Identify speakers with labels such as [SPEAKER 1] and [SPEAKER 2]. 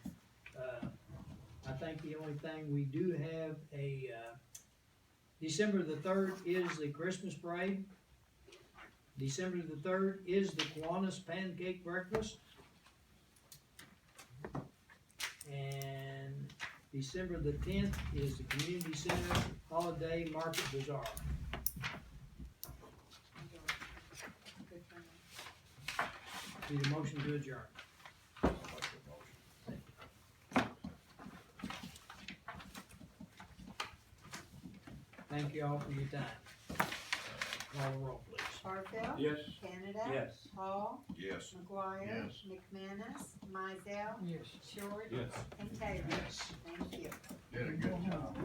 [SPEAKER 1] Uh, think the only thing, we do have a, uh, December the third is the Christmas parade. December the third is the Kiwanis Pancake Breakfast. And December the tenth is the Community Center Holiday Market Bazaar. Need a motion to adjourn. Thank you all for your time. Call the roll, please.
[SPEAKER 2] Barfield.
[SPEAKER 3] Yes.
[SPEAKER 2] Canada.
[SPEAKER 3] Yes.
[SPEAKER 2] Hall.
[SPEAKER 4] Yes.
[SPEAKER 2] McGuire.
[SPEAKER 4] Yes.
[SPEAKER 2] McManus. Mizell.
[SPEAKER 1] Yes.
[SPEAKER 2] Short.
[SPEAKER 3] Yes.
[SPEAKER 2] And Taylor.
[SPEAKER 1] Yes.
[SPEAKER 2] Thank you.
[SPEAKER 4] Did a good job.